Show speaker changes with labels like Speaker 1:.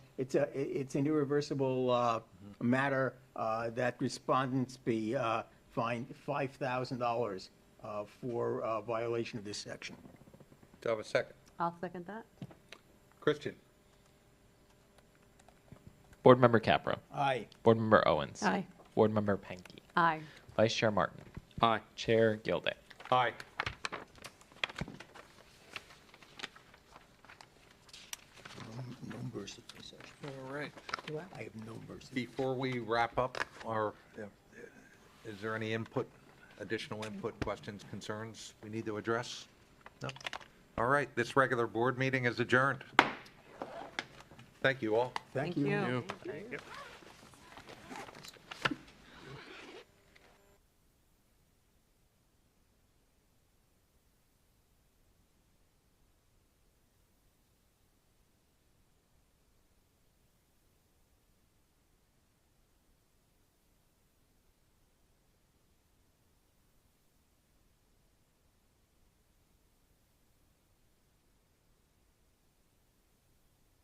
Speaker 1: It's a, it- it's an irreversible uh, matter uh, that respondents be uh, fined $5,000 uh, for uh, violation of this section.
Speaker 2: Do I have a second?
Speaker 3: I'll second that.
Speaker 2: Christian?
Speaker 4: Board Member Capra.
Speaker 1: Aye.
Speaker 4: Board Member Owens.
Speaker 3: Aye.
Speaker 4: Board Member Penke.
Speaker 3: Aye.
Speaker 4: Vice Chair Martin.
Speaker 2: Aye.
Speaker 4: Chair Gilday.
Speaker 2: Aye.
Speaker 1: No mercy for such.
Speaker 2: All right.
Speaker 1: I have no mercy.
Speaker 2: Before we wrap up, our, is there any input, additional input, questions, concerns we need to address? No? All right, this regular board meeting is adjourned. Thank you all.
Speaker 1: Thank you.
Speaker 3: you.